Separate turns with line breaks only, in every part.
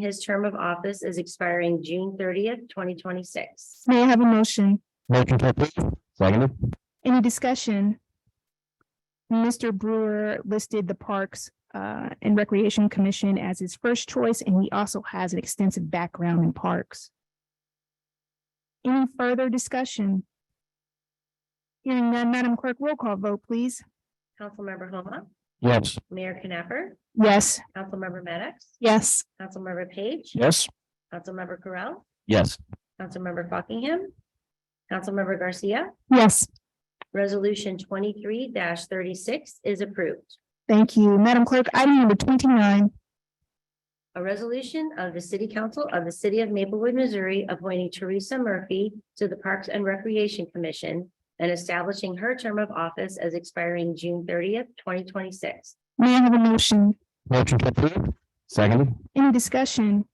His term of office is expiring June thirtieth, twenty twenty-six.
May I have a motion?
Motion to approve. Seconded.
Any discussion? Mr. Brewer listed the Parks uh, and Recreation Commission as his first choice, and he also has an extensive background in parks. Any further discussion? Hearing none, Madam Clerk, roll call vote, please.
Councilmember Homa,
Yes.
Mayor Knapper,
Yes.
Councilmember Maddox,
Yes.
Councilmember Page,
Yes.
Councilmember Correll,
Yes.
Councilmember Buckingham, Councilmember Garcia.
Yes.
Resolution twenty-three thirty-six is approved.
Thank you. Madam Clerk, item number twenty-nine,
A resolution of the City Council of the City of Maplewood, Missouri, appointing Teresa Murphy to the Parks and Recreation Commission and establishing her term of office as expiring June thirtieth, twenty twenty-six.
may I have a motion?
Motion to approve. Seconded.
Any discussion?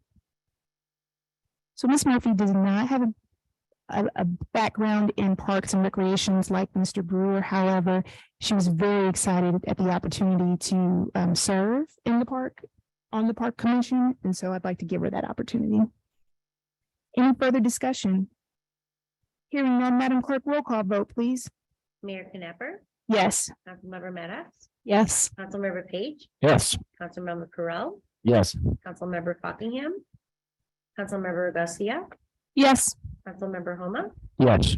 So Ms. Murphy does not have a, a, a background in parks and recreations like Mr. Brewer. However, she was very excited at the opportunity to, um, serve in the park, on the park commission, and so I'd like to give her that opportunity. Any further discussion? Hearing none, Madam Clerk, roll call vote, please.
Mayor Knapper,
Yes.
Councilmember Maddox,
Yes.
Councilmember Page,
Yes.
Councilmember Correll,
Yes.
Councilmember Buckingham, Councilmember Garcia,
Yes.
Councilmember Homa.
Yes.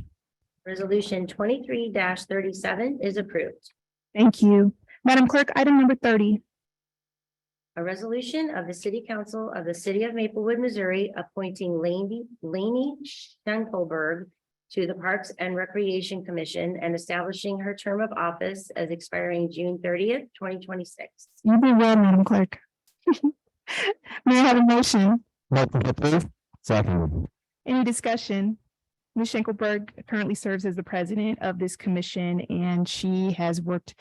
Resolution twenty-three thirty-seven is approved.
Thank you. Madam Clerk, item number thirty,
A resolution of the City Council of the City of Maplewood, Missouri, appointing Laney, Laney Schenkelberg to the Parks and Recreation Commission and establishing her term of office as expiring June thirtieth, twenty twenty-six.
You did well, Madam Clerk. May I have a motion?
Motion to approve. Seconded.
Any discussion? Ms. Schenkelberg currently serves as the president of this commission, and she has worked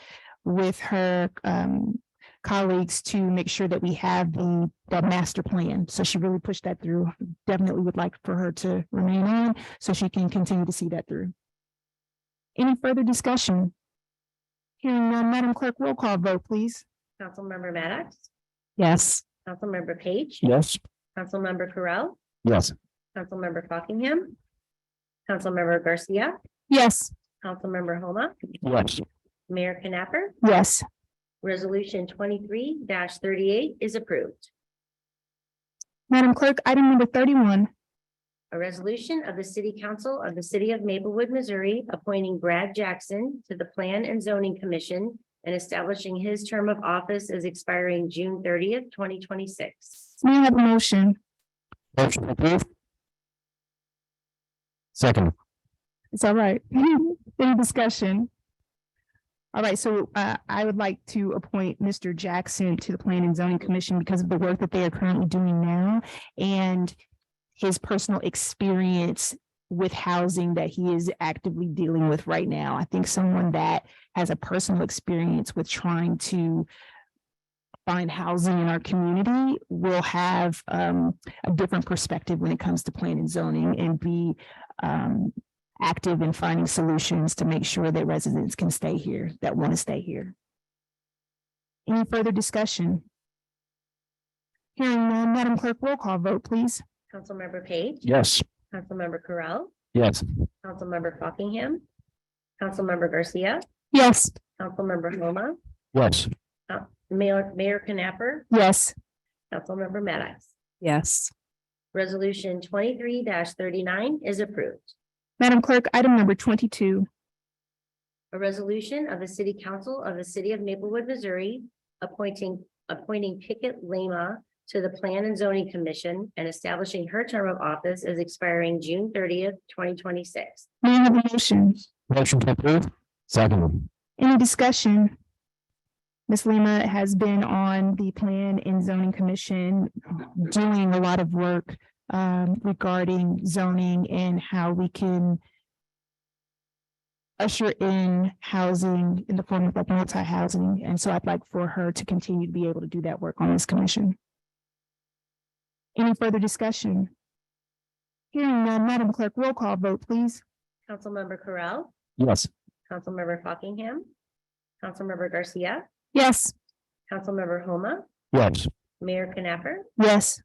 with her um, colleagues to make sure that we have the, the master plan. So she really pushed that through. Definitely would like for her to remain on so she can continue to see that through. Any further discussion? Hearing none, Madam Clerk, roll call vote, please.
Councilmember Maddox,
Yes.
Councilmember Page,
Yes.
Councilmember Correll,
Yes.
Councilmember Buckingham, Councilmember Garcia,
Yes.
Councilmember Homa,
Yes.
Mayor Knapper.
Yes.
Resolution twenty-three thirty-eight is approved.
Madam Clerk, item number thirty-one,
A resolution of the City Council of the City of Maplewood, Missouri, appointing Brad Jackson to the Plan and Zoning Commission and establishing his term of office as expiring June thirtieth, twenty twenty-six.
may I have a motion?
Motion to approve. Seconded.
It's all right. Any discussion? All right, so uh, I would like to appoint Mr. Jackson to the Plan and Zoning Commission because of the work that they are currently doing now and his personal experience with housing that he is actively dealing with right now. I think someone that has a personal experience with trying to find housing in our community will have um, a different perspective when it comes to plan and zoning and be um, active in finding solutions to make sure that residents can stay here, that want to stay here. Any further discussion? Hearing none, Madam Clerk, roll call vote, please.
Councilmember Page,
Yes.
Councilmember Correll,
Yes.
Councilmember Buckingham, Councilmember Garcia,
Yes.
Councilmember Homa, Uh,
Yes.
Mayor, Mayor Knapper,
Yes.
Councilmember Maddox.
Yes.
Resolution twenty-three thirty-nine is approved.
Madam Clerk, item number twenty-two,
A resolution of the City Council of the City of Maplewood, Missouri, appointing, appointing Pickett Lima to the Plan and Zoning Commission and establishing her term of office as expiring June thirtieth, twenty twenty-six.
may I have a motion?
Motion to approve. Seconded.
Any discussion? Ms. Lima has been on the Plan and Zoning Commission doing a lot of work um, regarding zoning and how we can usher in housing in the form of like multi-housing. And so I'd like for her to continue to be able to do that work on this commission. Any further discussion? Hearing none, Madam Clerk, roll call vote, please.
Councilmember Correll,
Yes.
Councilmember Buckingham, Councilmember Garcia,
Yes.
Councilmember Homa,
Yes.
Mayor Knapper,
Yes.